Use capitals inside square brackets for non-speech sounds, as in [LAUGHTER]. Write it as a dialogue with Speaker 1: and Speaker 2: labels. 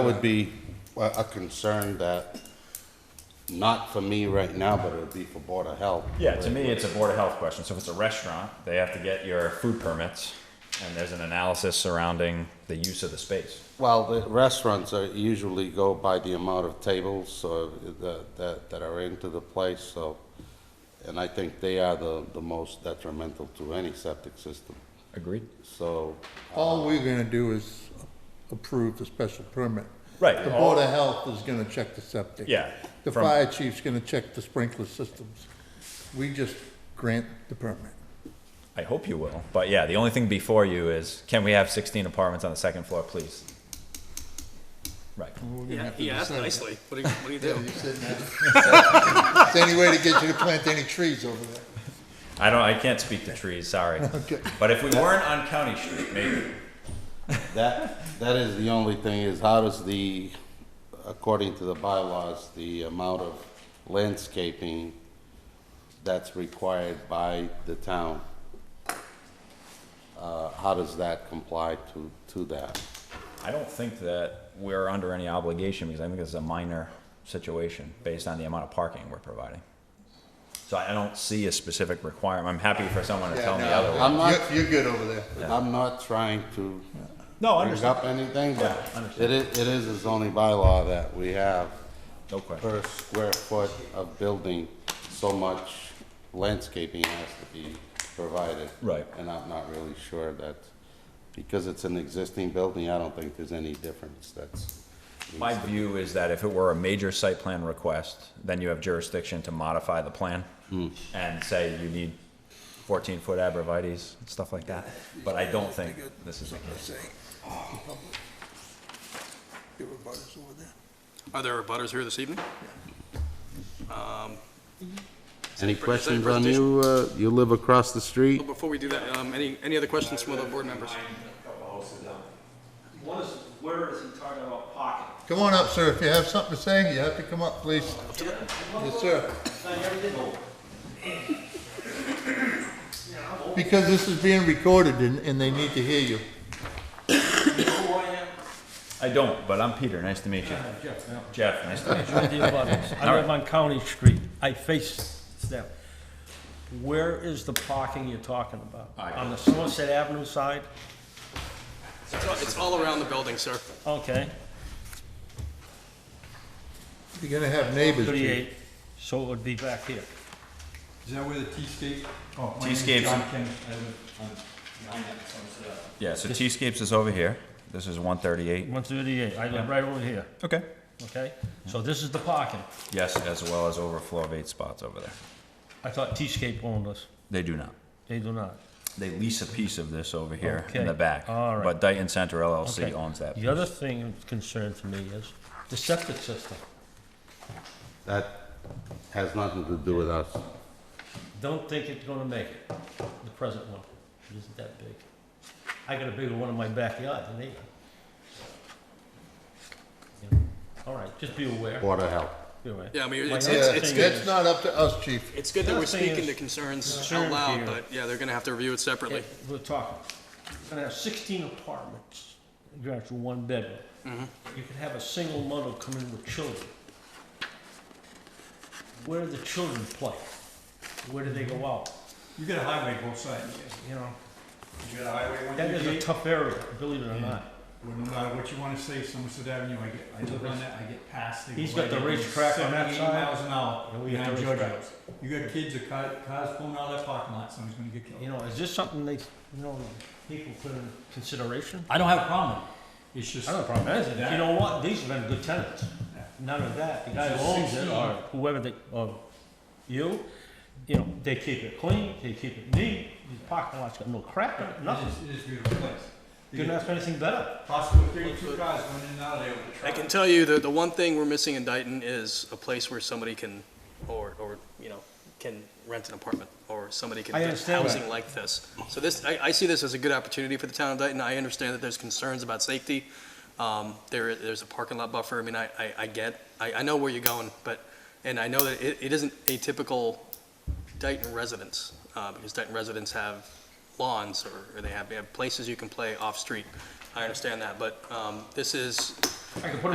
Speaker 1: That would be a a concern that, not for me right now, but it would be for Board of Health.
Speaker 2: Yeah, to me, it's a Board of Health question. So if it's a restaurant, they have to get your food permits, and there's an analysis surrounding the use of the space.
Speaker 1: Well, the restaurants are usually go by the amount of tables or the- that, that are into the place, so, and I think they are the, the most detrimental to any septic system.
Speaker 2: Agreed.
Speaker 1: So,
Speaker 3: All we're gonna do is approve the special permit.
Speaker 2: Right.
Speaker 3: The Board of Health is gonna check the septic.
Speaker 2: Yeah,
Speaker 3: The
Speaker 2: from-
Speaker 3: fire chief's gonna check the sprinkler systems. We just grant the permit.
Speaker 2: I hope you will. But yeah, the only thing before you is, can we have 16 apartments on the second floor, please? Right.
Speaker 3: We're gonna
Speaker 4: Yeah,
Speaker 3: have to
Speaker 4: he asked
Speaker 3: decide.
Speaker 4: nicely. What do you, what do you do?
Speaker 3: You said that. Is there any way to get you to plant any trees over there?
Speaker 2: I don't, I can't speak to trees, sorry.
Speaker 3: [LAUGHS] Okay.
Speaker 2: But if we weren't on County Street, maybe.
Speaker 1: that, that is the only thing, is how does the, according to the bylaws, the amount of landscaping that's required by the town, uh, how does that comply to, to that?
Speaker 2: I don't think that we're under any obligation because I think this is a minor situation based on the amount of parking we're providing. So I I don't see a specific requirement. I'm happy for someone to tell me otherwise.
Speaker 1: I'm not-
Speaker 3: You're, you're good over there.
Speaker 1: I'm not trying to
Speaker 2: No,
Speaker 1: bring
Speaker 2: understand.
Speaker 1: up anything, but
Speaker 2: Yeah,
Speaker 1: it
Speaker 2: understand.
Speaker 1: is, it is a zoning bylaw that we have
Speaker 2: No question.
Speaker 1: per square foot of building, so much landscaping has to be provided.
Speaker 2: Right.
Speaker 1: And I'm not really sure that, because it's an existing building, I don't think there's any difference that's.
Speaker 2: My view is that if it were a major site plan request, then you have jurisdiction to modify the plan and say you need fourteen foot abrevieties, and stuff like that. But I don't think this is the case.
Speaker 4: Are there butters here this evening?
Speaker 1: Any
Speaker 4: Present-
Speaker 1: questions on you, uh, you live across the street?
Speaker 4: But Before we do that, um, any, any other questions from other board members?
Speaker 5: One is, where is he talking about parking?
Speaker 3: Come on up, sir. If you have something to say, you have to come up, please. Yes, sir. Because this is being recorded and, and they need to hear you.
Speaker 5: Who I am?
Speaker 2: I don't, but I'm Peter, nice to meet you.
Speaker 5: Jeff,
Speaker 2: Jeff, nice to meet you.
Speaker 5: I live on County Street, I face them. Where is the parking you're talking about?
Speaker 2: I-
Speaker 5: On the Somerset Avenue side?
Speaker 4: It's all- It's all around the building, sir.
Speaker 5: Okay,
Speaker 3: You're gonna have neighbors. Chief.
Speaker 5: thirty-eight, so it would be back here.
Speaker 6: Is that where the T-scape? Oh, my name's
Speaker 2: T-scape's-
Speaker 6: John King, I live on nine at Somerset Ave.
Speaker 2: Yeah, so T-Scapes is over here. This is one thirty-eight.
Speaker 5: One thirty-eight, I live right over here,
Speaker 2: Okay.
Speaker 5: okay? So this is the parking.
Speaker 2: Yes, as well as overflow of eight spots over there.
Speaker 5: I thought T-Scape owned us,
Speaker 2: They do not.
Speaker 5: they do not.
Speaker 2: They lease a piece of this over here in the
Speaker 5: Okay,
Speaker 2: back.
Speaker 5: all right.
Speaker 2: But Dayton Center LLC
Speaker 5: Okay.
Speaker 2: owns that.
Speaker 5: The other thing of concern to me is the septic system.
Speaker 1: That has nothing to do with us.
Speaker 5: Don't think it's gonna make it, the present one. It isn't that big. I got a bigger one in my backyard than they. got. Yeah. All right, just be aware,
Speaker 1: Board of Health.
Speaker 5: be aware.
Speaker 4: Yeah, I mean,
Speaker 5: My
Speaker 4: it's-
Speaker 3: Yeah,
Speaker 5: other
Speaker 4: it's-
Speaker 5: thing
Speaker 4: it's
Speaker 3: that's
Speaker 5: is-
Speaker 3: not up to us, chief.
Speaker 4: It's good that we're
Speaker 5: Another thing
Speaker 4: speaking
Speaker 5: is-
Speaker 4: to concerns
Speaker 5: Concern
Speaker 4: out loud,
Speaker 5: here.
Speaker 4: but yeah, they're gonna have to review it separately.
Speaker 5: Yeah, We're talking, We're gonna have sixteen apartments, you're gonna have one bedroom.
Speaker 4: Mm-hmm.
Speaker 5: You could have a single mother come in with children. Where do the children play? Where do they go out?
Speaker 6: You got a highway both sides, you know, you got a highway one
Speaker 5: That is a
Speaker 6: thirty-eight,
Speaker 5: tough area, believe it or not.
Speaker 6: well, no matter uh, what you wanna say, Somerset Avenue, I get, I live on that, I get past the.
Speaker 5: He's got the racetrack on that side,
Speaker 6: miles an hour,
Speaker 5: and we got
Speaker 6: behind
Speaker 5: the racetrack.
Speaker 6: Giorgio's. You got kids, that car, cars pulling out of that parking lot, somebody's gonna get
Speaker 5: You
Speaker 6: killed.
Speaker 5: know, is this something they, you know, people put in consideration?
Speaker 6: I don't have a problem, it's just.
Speaker 5: I don't have a problem with anything.
Speaker 6: That-
Speaker 5: You know what? These have been good tenants.
Speaker 6: Yeah.
Speaker 5: None of that. The guy who
Speaker 6: It's
Speaker 5: owns it
Speaker 6: 16.
Speaker 5: or whoever they, or you, you know, they keep it clean, they keep it neat. These parking lot's got no crap in it, nothing.
Speaker 6: It is, it is a beautiful place. You
Speaker 5: Couldn't
Speaker 6: got
Speaker 5: ask for anything better.
Speaker 6: possibly thirty-two cars going in and out of there with the
Speaker 4: I
Speaker 6: truck.
Speaker 4: can tell you that the one thing we're missing in Dayton is a place where somebody can, or, or, you know, can rent an apartment, or somebody can
Speaker 5: I
Speaker 4: do
Speaker 5: understand that.
Speaker 4: housing like this. So this, I, I see this as a good opportunity for the town of Dayton. I understand that there's concerns about safety. Um, there, there's a parking lot buffer. I mean, I, I, I get, I, I know where you're going, but, and I know that it, it isn't a typical Dayton residence, uh, because Dayton residents have lawns, or, or they have, they have places you can play off-street. I understand that, but, um, this is,
Speaker 5: I could put